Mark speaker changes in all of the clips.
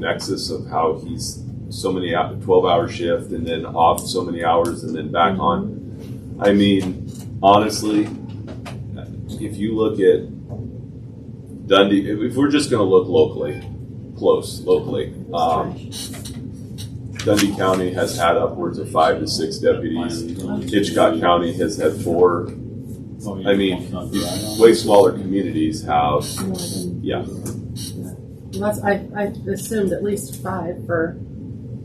Speaker 1: nexus of how he's so many hou- 12 hour shift and then off so many hours and then back on. I mean, honestly, if you look at Dundee, if if we're just going to look locally, close locally, um, Dundee County has had upwards of five to six deputies. Hitchcock County has had four. I mean, these way smaller communities have,
Speaker 2: more than,
Speaker 1: yeah,
Speaker 2: well, that's, I, I assumed at least five for,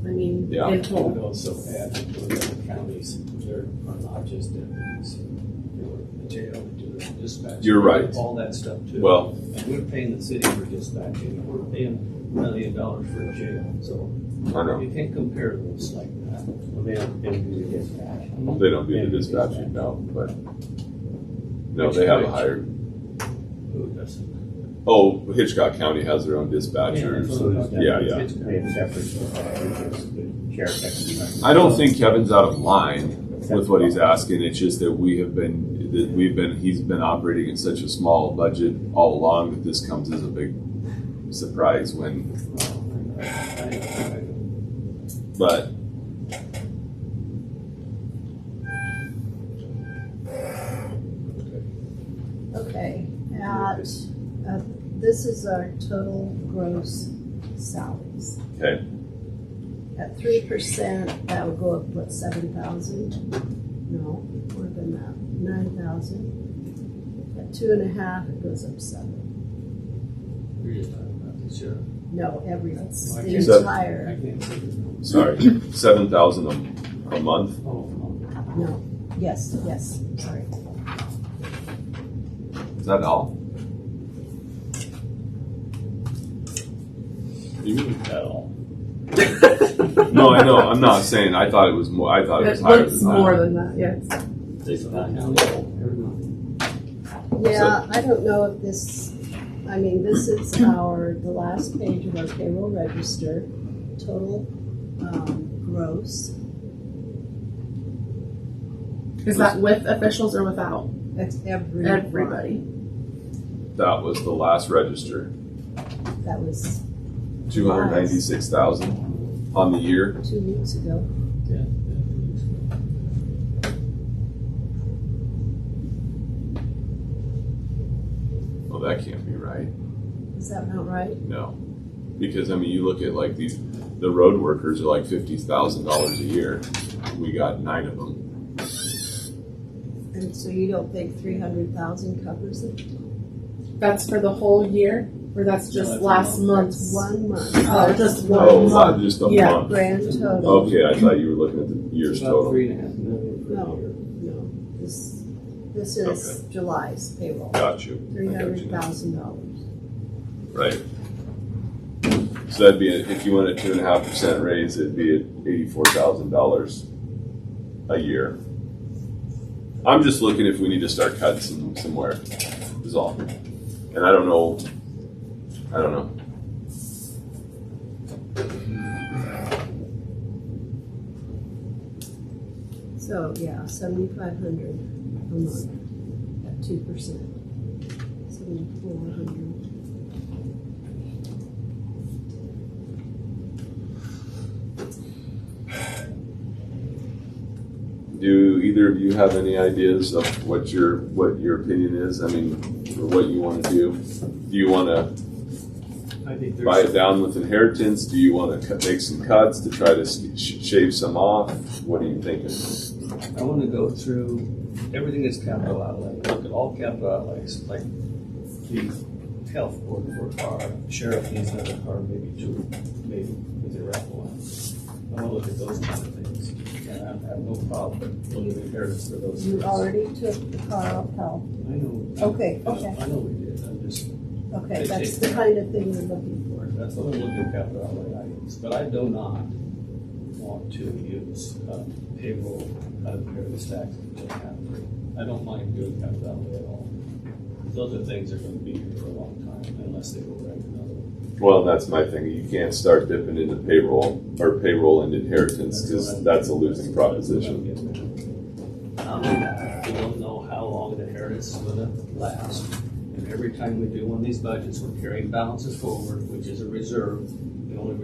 Speaker 2: I mean,
Speaker 1: Yeah.
Speaker 2: in total.
Speaker 3: We'll also add that the other counties, there are not just deputies, there were jail, there were dispatch.
Speaker 1: You're right.
Speaker 3: All that stuff too.
Speaker 1: well,
Speaker 3: And we're paying the city for dispatching, and we're paying a million dollars for a jail, so
Speaker 1: I know,
Speaker 3: you can't compare those like that.
Speaker 1: they don't do the dispatching now, but, no, they have a higher,
Speaker 3: Who doesn't?
Speaker 1: oh, Hitchcock County has their own dispatchers. Yeah, yeah. I don't think Kevin's out of line with what he's asking, it's just that we have been, that we've been, he's been operating at such a small budget all along that this comes as a big surprise when But
Speaker 4: Okay, at, uh, this is our total gross salaries.
Speaker 1: Okay.
Speaker 4: At three percent, that would go up, what, seven thousand? No, more than that, nine thousand. At two and a half, it goes up seven. No, every, it's the
Speaker 1: Is that-
Speaker 4: entire,
Speaker 1: sorry, seven thousand a, a month.
Speaker 4: no, yes, yes, sorry.
Speaker 1: Is that all?
Speaker 5: You mean at all?
Speaker 1: No, I know. I'm not saying. I thought it was more. I thought it was
Speaker 2: It
Speaker 1: Oh, higher
Speaker 2: looks
Speaker 1: than that.
Speaker 2: more than that, yes.
Speaker 4: Yeah, I don't know if this, I mean, this is our, the last page of our payroll register, total, um, gross,
Speaker 2: Is that with officials or without?
Speaker 4: that's every.
Speaker 2: Everybody.
Speaker 1: That was the last register.
Speaker 4: That was
Speaker 1: Two hundred ninety-six thousand on the year.
Speaker 4: two weeks ago.
Speaker 1: Well, that can't be right.
Speaker 4: Is that not right?
Speaker 1: No, because I mean, you look at like these. The road workers are like fifty thousand dollars a year. We got nine of them.
Speaker 4: And so you don't think three hundred thousand covers it?
Speaker 2: That's for the whole year, or that's just
Speaker 3: that's
Speaker 2: last
Speaker 3: a
Speaker 2: month's?
Speaker 4: One month.
Speaker 2: Oh, just
Speaker 1: Oh,
Speaker 2: one
Speaker 1: not
Speaker 2: month.
Speaker 1: just a
Speaker 2: Yeah.
Speaker 1: month.
Speaker 4: Grand total,
Speaker 1: Okay, I thought you were looking at the year's total.
Speaker 3: Three and a half million
Speaker 4: No.
Speaker 3: per year.
Speaker 4: no, this, this is July's payroll,
Speaker 1: Got you. I got you
Speaker 4: three
Speaker 1: now.
Speaker 4: hundred thousand dollars.
Speaker 1: Right. So that'd be, a- if you want a two and a half percent raise, it'd be at eighty-four thousand dollars a year. I'm just looking if we need to start cutting some, somewhere, is all. And I don't know, I don't know.
Speaker 4: So, yeah, seventy-five hundred a month at two percent. Seventy-four hundred.
Speaker 1: Do either of you have any ideas of what your, what your opinion is? I mean, or what you wanna do? Do you wanna
Speaker 3: I think
Speaker 1: buy
Speaker 3: there's,
Speaker 1: it down with inheritance? Do you wanna cut- make some cuts to try to s- sh- shave some off? What are you thinking?
Speaker 3: I wanna go through everything that's capital outlay, look at all capital outlays, like the health board for a car, sheriff needs another car, maybe two, maybe with their raffle one. I wanna look at those kind of things, and I have no problem looking at inheritance for those.
Speaker 4: You
Speaker 3: things.
Speaker 4: already took the car off help.
Speaker 3: I know,
Speaker 4: Okay, okay,
Speaker 3: I know we did, I'm just,
Speaker 4: okay, that's the kind of thing we're looking for.
Speaker 3: that's what I'm looking at capital outlay items, but I do not want to use uh, payroll out of various taxes to have. I don't mind doing capital outlay at all. Those are things that are gonna be here for a long time unless they go right another one.
Speaker 1: Well, that's my thing. You can't start dipping into payroll or payroll and inheritance because that's a losing proposition.
Speaker 3: Um, We don't know how long the inheritance is gonna last. And every time we do one of these budgets, we're carrying balances forward, which is a reserve. The only